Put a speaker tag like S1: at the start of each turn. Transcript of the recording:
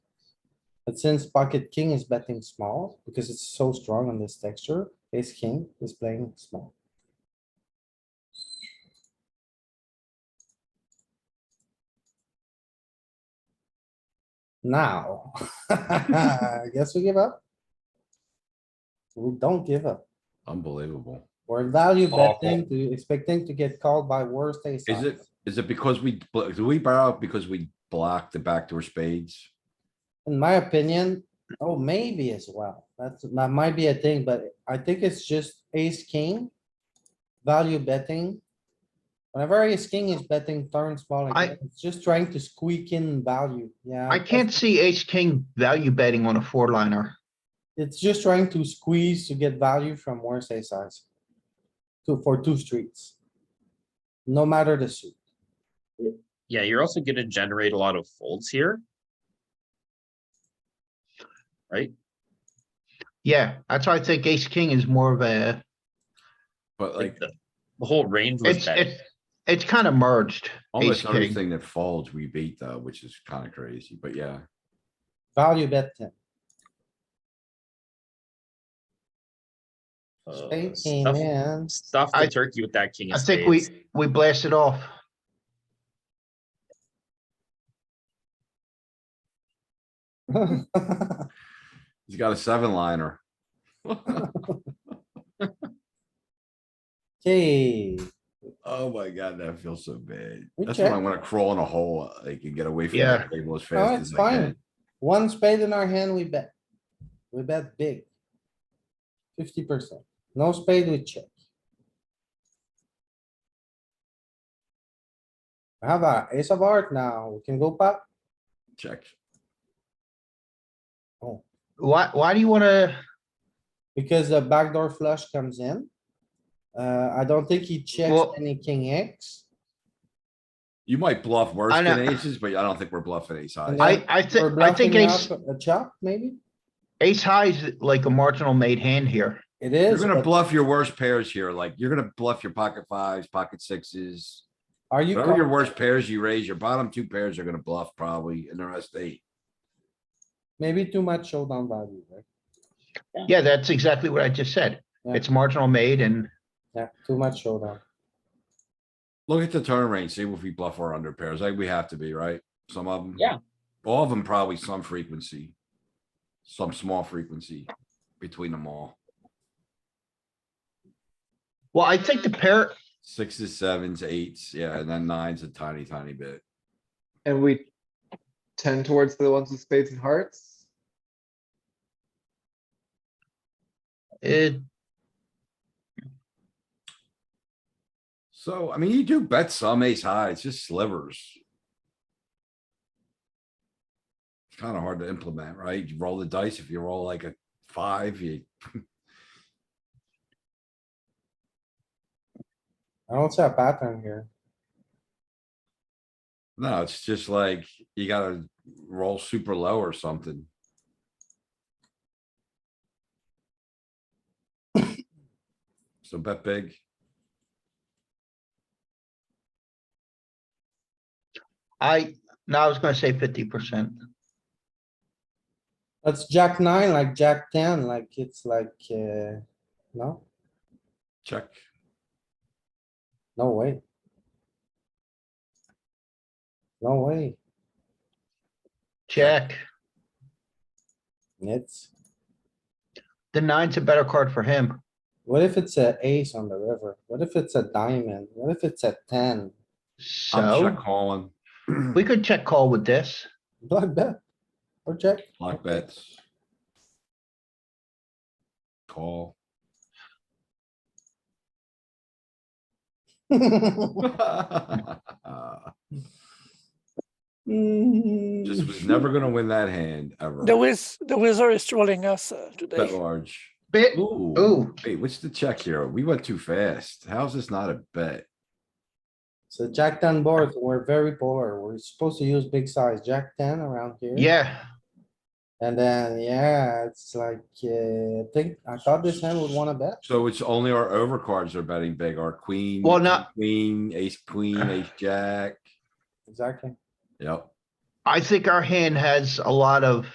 S1: But since pocket king is betting small, because it's so strong on this texture, ace king is playing small. Now, I guess we give up. We don't give up.
S2: Unbelievable.
S1: We're value
S3: Awful.
S1: betting to expecting to get called by worst ace.
S2: Is it,
S1: odds.
S2: is it because we, bl- do we barrel because we blocked the backdoor spades?
S1: In my opinion, oh, maybe as well. That's, that might be a thing, but I think it's just ace, king. Value betting. Whenever ace, king is betting turn small,
S4: I-
S1: again, it's just trying to squeak in value, yeah.
S4: I can't see ace king value betting on a four liner.
S1: It's just trying to squeeze to get value from worse ace size. Two, for two streets. No matter the suit.
S3: Yeah, you're also gonna generate a lot of folds here.
S4: Yeah, that's why I think ace king is more of a,
S2: But
S3: Like
S2: like,
S3: the, the whole range was
S4: it's,
S3: bad.
S4: it's, it's kind of merged.
S2: almost
S4: ace king.
S2: everything that folds, we beat though, which is kinda crazy, but yeah.
S1: Value bet ten.
S3: Uh,
S1: Spade came
S3: Stuff
S1: in.
S3: stuff
S4: I-
S3: the turkey with that king
S4: I
S3: of
S4: think we,
S3: spades.
S4: we blasted off.
S2: He's got a seven liner.
S1: Okay,
S2: Oh my god, that feels so bad.
S1: We
S2: That's when I
S1: check.
S2: wanna crawl in a hole, like and get away from
S4: Yeah.
S2: that table as
S1: no,
S2: fast
S1: it's
S2: as I
S1: fine.
S2: can.
S1: One spade in our hand, we bet. We bet big. Fifty percent. No spade, we check. We Have a ace of heart now. We can go pop.
S2: Check.
S4: Why, why do you wanna,
S1: Because the backdoor flush comes in. Uh, I don't think he checks
S4: Well-
S1: any king X.
S2: You might bluff worse
S4: I know-
S2: than aces, but I don't think we're bluffing ace high.
S1: And
S4: I, I
S1: We're
S4: think, I think
S1: bluffing
S4: ace,
S1: up a chop, maybe?
S4: ace high is like a marginal made hand here.
S1: It
S2: You're
S1: is,
S2: gonna
S1: but
S2: bluff your worst pairs here, like you're gonna bluff your pocket fives, pocket sixes.
S1: are you,
S2: Whatever your
S1: call-
S2: worst pairs you raise, your bottom two pairs are gonna bluff probably and the rest eight.
S1: maybe too much showdown value, right?
S4: Yeah, that's exactly what I just said.
S1: Yeah.
S4: It's marginal made and
S1: Yeah, too much showdown.
S2: Look at the turn range, see if we bluff our under pairs. Like we have to be, right? Some of them.
S3: Yeah.
S2: All of them probably some frequency. Some small frequency between them all.
S4: Well, I think the pair,
S2: Sixes, sevens, eights, yeah, and then nines a tiny, tiny bit.
S5: And we tend towards the ones with spades and hearts.
S4: it,
S2: So, I mean, you do bet some ace high, it's just slivers. It's kind of hard to implement, right? You roll the dice. If you roll like a five, you,
S1: I don't see a pattern here.
S2: no, it's just like you gotta roll super low or something. So bet big.
S4: I, no, I was gonna say fifty percent.
S1: That's jack nine, like jack ten, like it's like, uh, no,
S2: Check.
S1: no way. No way,
S4: Jack,
S1: it's,
S4: the nine's a better card for him.
S1: what if it's a ace on the river? What if it's a diamond? What if it's a ten?
S2: I'm check
S4: So
S2: calling.
S4: we could check call with this.
S1: Black bet. Or check,
S2: Block bets. Call. Just was never gonna win that hand ever.
S6: The wiz, the wizard is trolling us uh, today.
S2: Bet large.
S4: Bit,
S2: Ooh,
S4: ooh,
S2: wait, what's the check here? We went too fast. How's this not a bet?
S1: so jack ten boards, we're very polar, we're supposed to use big size, jack ten around here.
S4: yeah,
S1: And then, yeah, it's like, uh, I think, I thought this hand would wanna bet.
S2: So it's only our overcards are betting big, our queen.
S4: Well, not-
S2: king, Queen, ace, queen, ace, jack.
S1: Exactly.
S2: Yep.
S4: I think our hand has a lot of